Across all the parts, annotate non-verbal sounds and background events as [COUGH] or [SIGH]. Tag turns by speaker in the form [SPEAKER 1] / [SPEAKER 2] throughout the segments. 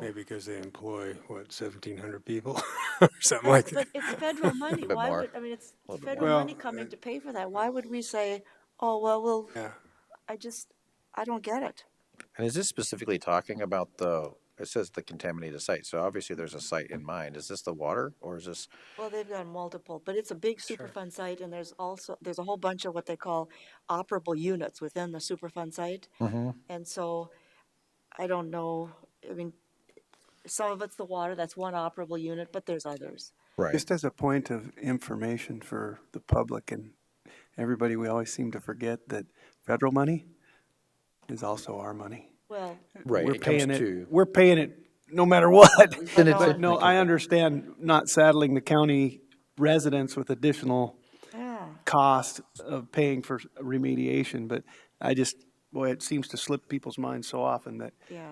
[SPEAKER 1] Maybe because they employ, what, 1,700 people [LAUGHS] or something like that?
[SPEAKER 2] [LAUGHS]
[SPEAKER 3] [LAUGHS]
[SPEAKER 2] But it's federal money,
[SPEAKER 3] bit
[SPEAKER 2] why
[SPEAKER 3] more.
[SPEAKER 2] would, I mean, it's
[SPEAKER 3] little bit
[SPEAKER 2] federal
[SPEAKER 1] more.
[SPEAKER 2] money
[SPEAKER 1] Well,
[SPEAKER 2] coming
[SPEAKER 1] uh,
[SPEAKER 2] to pay for that, why would we say, oh, well, we'll
[SPEAKER 1] Yeah.
[SPEAKER 2] I just, I don't get it.
[SPEAKER 3] And is this specifically talking about the, it says the contaminated site, so obviously there's a site in mind. Is this the water or is this,
[SPEAKER 2] Well, they've got multiple, but it's a big Superfund site, and there's also, there's a whole bunch of what they call operable units within the Superfund site.
[SPEAKER 3] Mm-hmm.
[SPEAKER 2] And so, I don't know, I mean, some of it's the water, that's one operable unit, but there's others.
[SPEAKER 3] right?
[SPEAKER 4] Just as a point of information for the public and everybody, we always seem to forget that federal money is also our money.
[SPEAKER 2] Well,
[SPEAKER 3] Right,
[SPEAKER 4] We're
[SPEAKER 3] it comes
[SPEAKER 4] paying it,
[SPEAKER 3] to-
[SPEAKER 4] we're paying it no matter what.
[SPEAKER 3] [LAUGHS] Then it's-
[SPEAKER 4] [LAUGHS] But no, I understand not saddling the county residents with additional
[SPEAKER 2] yeah,
[SPEAKER 4] cost of paying for remediation, but I just, boy, it seems to slip people's minds so often that
[SPEAKER 2] yeah,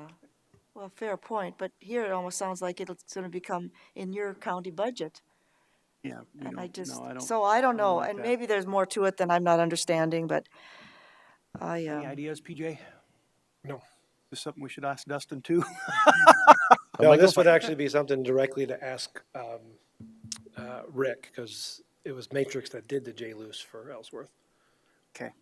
[SPEAKER 2] well, fair point, but here it almost sounds like it's gonna become in your county budget.
[SPEAKER 4] Yeah, we
[SPEAKER 2] And I
[SPEAKER 4] don't,
[SPEAKER 2] just,
[SPEAKER 4] no, I don't.
[SPEAKER 2] so I don't know,
[SPEAKER 4] like
[SPEAKER 2] and
[SPEAKER 4] that.
[SPEAKER 2] maybe there's more to it than I'm not understanding, but I,
[SPEAKER 4] Any
[SPEAKER 2] uh,
[SPEAKER 4] ideas, PJ?
[SPEAKER 5] No.
[SPEAKER 4] Is something we should ask Dustin too?
[SPEAKER 5] No, this would actually be something directly to ask um, uh, Rick, because it was Matrix that did the J-Luce for Ellsworth.
[SPEAKER 4] Okay.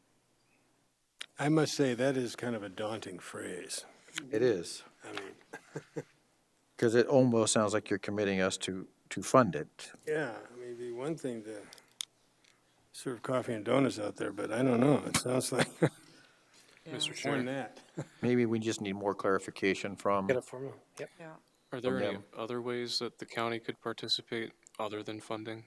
[SPEAKER 1] I must say, that is kind of a daunting phrase.
[SPEAKER 3] It is,
[SPEAKER 1] I mean,
[SPEAKER 3] because it almost sounds like you're committing us to, to fund it.
[SPEAKER 1] yeah, maybe one thing to serve coffee and donuts out there, but I don't know. It sounds like [LAUGHS]
[SPEAKER 6] Mr.
[SPEAKER 1] more than
[SPEAKER 6] Chair,
[SPEAKER 1] that.
[SPEAKER 3] Maybe we just need more clarification from,
[SPEAKER 5] Get it for me? Yep.
[SPEAKER 2] yeah.
[SPEAKER 6] are there
[SPEAKER 3] from
[SPEAKER 6] any
[SPEAKER 3] them.
[SPEAKER 6] other ways that the county could participate other than funding?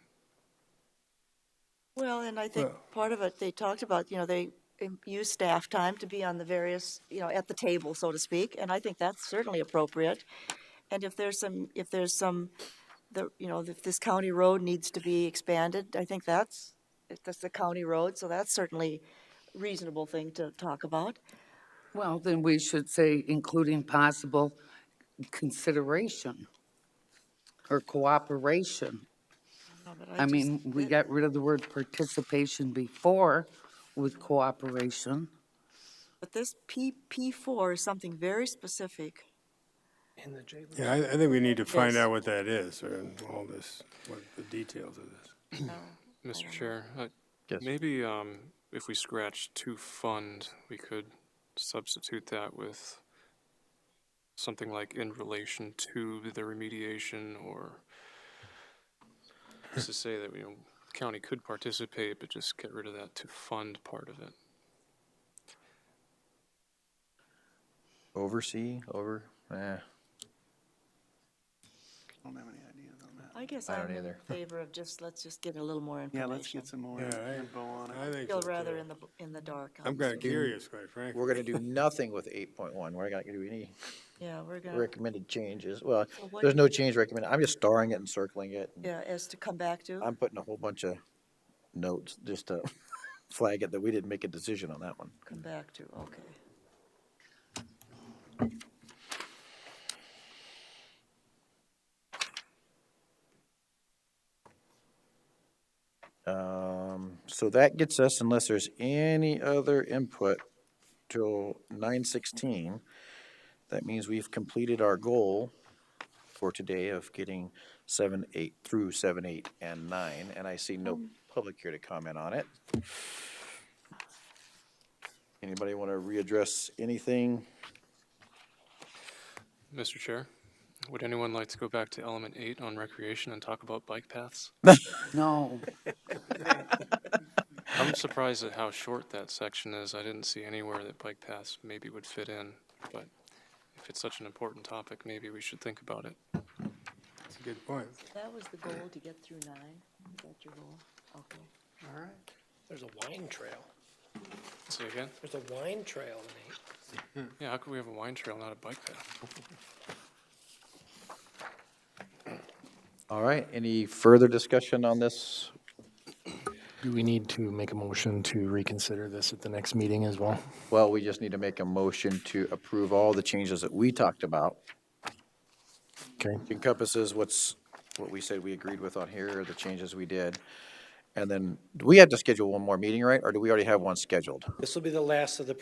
[SPEAKER 2] Well, and I think
[SPEAKER 1] Well-
[SPEAKER 2] part of it, they talked about, you know, they um, use staff time to be on the various, you know, at the table, so to speak, and I think that's certainly appropriate. And if there's some, if there's some, the, you know, if this county road needs to be expanded, I think that's, if that's the county road, so that's certainly reasonable thing to talk about.
[SPEAKER 7] Well, then we should say including possible consideration or cooperation.
[SPEAKER 2] Uh, but
[SPEAKER 7] I
[SPEAKER 2] just-
[SPEAKER 7] mean, we got rid of the word participation before with cooperation.
[SPEAKER 2] But this P, P four is something very specific.
[SPEAKER 5] In the J-Luce.
[SPEAKER 1] Yeah, I, I think we need to find
[SPEAKER 2] Yes.
[SPEAKER 1] out what that is or all this, what the details of this.
[SPEAKER 6] Mr. Chair, uh,
[SPEAKER 3] Yes.
[SPEAKER 6] maybe um, if we scratch to fund, we could substitute that with something like in relation to the remediation or just to say that, you know, the county could participate, but just get rid of that to fund part of it.
[SPEAKER 3] oversee, over, eh,
[SPEAKER 4] Don't have any ideas on that.
[SPEAKER 2] I guess
[SPEAKER 3] I
[SPEAKER 2] I'm
[SPEAKER 3] don't
[SPEAKER 2] in
[SPEAKER 3] either. [LAUGHS]
[SPEAKER 2] favor of just, let's just get a little more
[SPEAKER 4] Yeah, let's
[SPEAKER 2] information.
[SPEAKER 4] get some more
[SPEAKER 1] Yeah, I-
[SPEAKER 4] info on it.
[SPEAKER 1] I think
[SPEAKER 2] Feel
[SPEAKER 1] so,
[SPEAKER 2] rather
[SPEAKER 1] too.
[SPEAKER 2] in the, b- in the dark. on
[SPEAKER 1] I'm
[SPEAKER 2] this
[SPEAKER 1] kind of curious, quite frankly.
[SPEAKER 3] we're gonna do nothing with eight point one. We're not gonna do any
[SPEAKER 2] one. Yeah, we're gonna,
[SPEAKER 3] recommended changes. Well,
[SPEAKER 2] So what-
[SPEAKER 3] there's no change recommended. I'm just starring it and circling it.
[SPEAKER 2] yeah, as to come back to.
[SPEAKER 3] I'm putting a whole bunch of notes just to [LAUGHS] flag it that we didn't make a decision on that one.
[SPEAKER 2] Come back to, okay.
[SPEAKER 3] Um, so that gets us, unless there's any other input till nine sixteen, that means we've completed our goal for today of getting seven, eight through seven, eight, and nine, and I see no public here to comment on it. Anybody want to readdress anything?
[SPEAKER 6] Mr. Chair, would anyone like to go back to element eight on recreation and talk about bike paths?
[SPEAKER 7] No,
[SPEAKER 6] I'm surprised at how short that section is. I didn't see anywhere that bike paths maybe would fit in, but if it's such an important topic, maybe we should think about it.
[SPEAKER 1] That's a good point.
[SPEAKER 2] That was the goal, to get through nine? Is that your goal? Okay.
[SPEAKER 5] There's a wine trail.
[SPEAKER 6] Say again?
[SPEAKER 5] There's a wine trail in eight.
[SPEAKER 6] Yeah, how could we have a wine trail, not a bike path?
[SPEAKER 3] All right, any further discussion on this?
[SPEAKER 8] Do we need to make a motion to reconsider this at the next meeting as well?
[SPEAKER 3] Well, we just need to make a motion to approve all the changes that we talked about
[SPEAKER 8] Okay,
[SPEAKER 3] encompasses what's, what we said we agreed with on here, or the changes we did. And then, do we have to schedule one more meeting, right? Or do we already have one scheduled?
[SPEAKER 5] This will be the last of the